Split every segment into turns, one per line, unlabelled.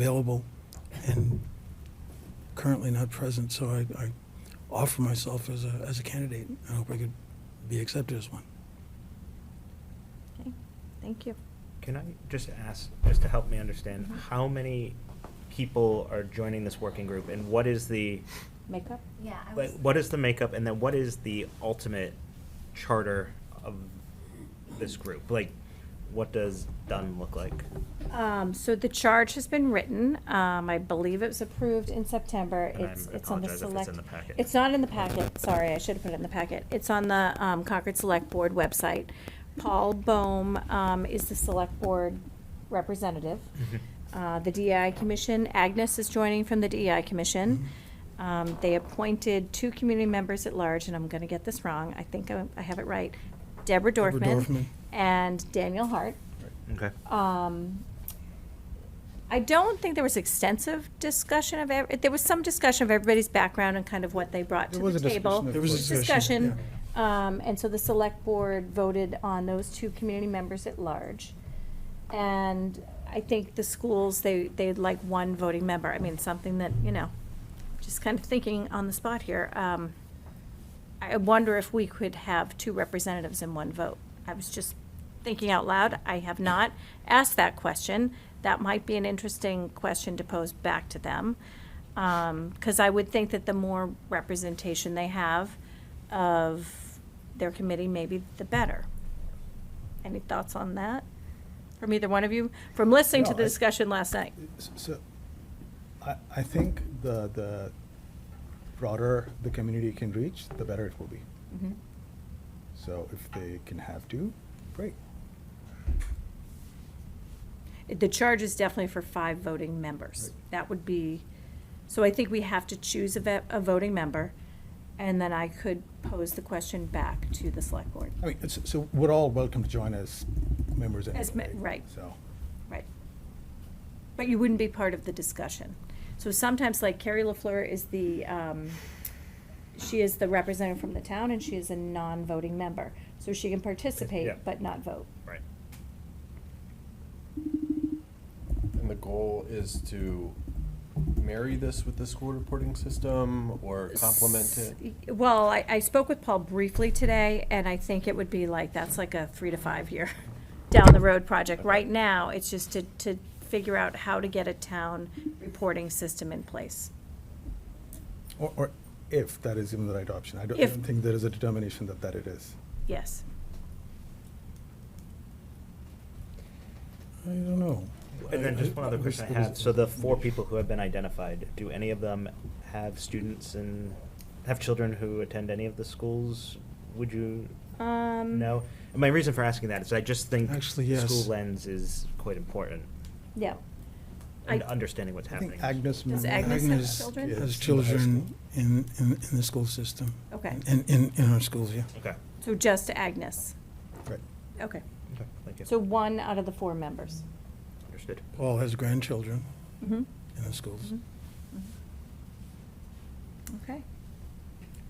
available and currently not present, so I, I offer myself as a, as a candidate. I hope I could be accepted as one.
Thank you.
Can I just ask, just to help me understand, how many people are joining this working group, and what is the,
Makeup?
Yeah, I
what
was,
what is the makeup, and then what is the ultimate charter of this group? Like, what does done look like?
Um, so the charge has been written. Um, I believe it was approved in September.
And
It's,
I'm-
it's on the
apologize if it's
select.
in the packet.
It's not in the packet. Sorry, I should have put it in the packet. It's on the, um, Concord Select Board website. Paul Bohm, um, is the select board representative. Uh, the DEI Commission, Agnes is joining from the DEI Commission.
Mm-hmm.
Um, they appointed two community members at large, and I'm gonna get this wrong. I think I, I have it right. Deborah
Deborah
Dorfman
Dorfman.
and Daniel Hart.
Mm-hmm.
Okay.
Um, I don't think there was extensive discussion of, ev- there was some discussion of everybody's background and kind of what they brought to
There was
the
a discussion
table.
of
There was a discussion,
Discussion, um, and so the select board voted on those two community members at large. And I think the schools, they, they'd like one voting member. I mean, something that, you know, just kind of thinking on the spot here. Um, I wonder if we could have two representatives in one vote. I was just thinking out loud. I have not asked that question. That might be an interesting question to pose back to them. Because I would think that the more representation they have of their committee, maybe the better. Any thoughts on that from either one of you? From listening to
No,
the
I-
discussion last night?
S- So, I, I think the, the broader the community can reach, the better it will be.
Mhm.
So if they can have two, great.
The charge is definitely for five voting members.
Right.
That would be, so I think we have to choose a, ve- a voting member, and then I could pose the question back to the select board.
I mean, it's, so we're all welcome to join as members
As
anyway.
me- right.
So,
Right. But you wouldn't be part of the discussion. So sometimes, like Carrie LaFleur is the, um, she is the representative from the town, and she is a non-voting member. So she can
Yeah.
participate, but not vote.
Right.
And the goal is to marry this with the school reporting system or complement it?
Well, I, I spoke with Paul briefly today, and I think it would be like, that's like a three to five year down the road project. Right
Okay.
now, it's just to, to figure out how to get a town reporting system in place.
or, or if that is even the right option. I don't, I
If-
don't think there is a determination that, that it is.
Yes.
I don't know.
And then just one other
I- I-
question I
there was-
had, so the four people who have been identified, do any of them have students and, have children who attend any of the schools? Would you
Um,
know? And my reason for asking that is I just think
Actually, yes.
school lens is quite important
Yeah.
and
I-
understanding what's
I
happening.
think Agnes.
Does
Mann-
Agnes have children?
Yes, in the
Has
high
children
school.
in, in, in the school system.
Okay.
In, in, in our schools, yeah.
Okay.
So just Agnes.
Right.
Okay.
Okay, thank you.
So one out of the four members.
Understood.
Paul has grandchildren
Mm-hmm.
in the schools.
Okay.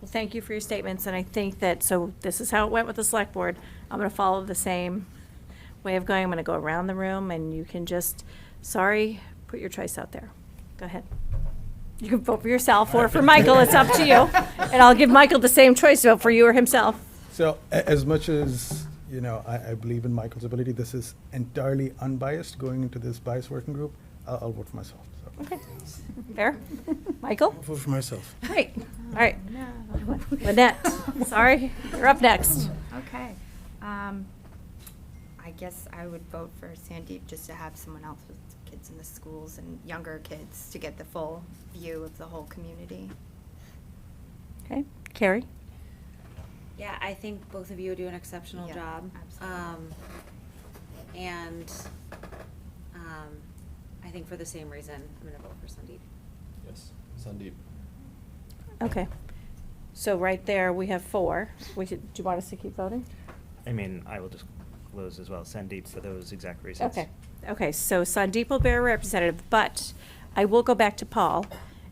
Well, thank you for your statements, and I think that, so this is how it went with the select board. I'm gonna follow the same way of going. I'm gonna go around the room, and you can just, sorry, put your choice out there. Go ahead. You can vote for yourself or for Michael, it's up to you. And I'll give Michael the same choice, vote for you or himself.
So a- as much as, you know, I, I believe in Michael's ability, this is entirely unbiased going into this biased working group. I'll, I'll vote for myself, so.
Okay, fair. Michael?
I'll vote for myself.
Great, all right. Lynette, sorry, you're up next.
okay. Um, I guess I would vote for Sandeep just to have someone else with kids in the schools and younger kids to get the full view of the whole community.
Okay, Carrie?
Yeah, I think both of you do an exceptional
Yeah,
job.
absolutely.
Um, and, um, I think for the same reason, I'm gonna vote for Sandeep.
Yes, Sandeep.
Okay. So right there, we have four. We should, do you want us to keep voting?
I mean, I will just close as well, Sandeep for those exact reasons.
Okay, okay, so Sandeep will be our representative, but I will go back to Paul,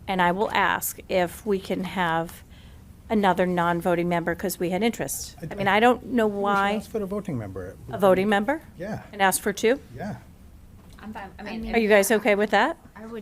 and I will ask if we can have another non-voting member, because we had interest. I mean, I don't know
We should
why,
ask for a voting member.
a voting member?
Yeah.
And ask for two?
Yeah.
I'm
I'm fine, I
I mean-
mean.
Are you guys okay with that?
I would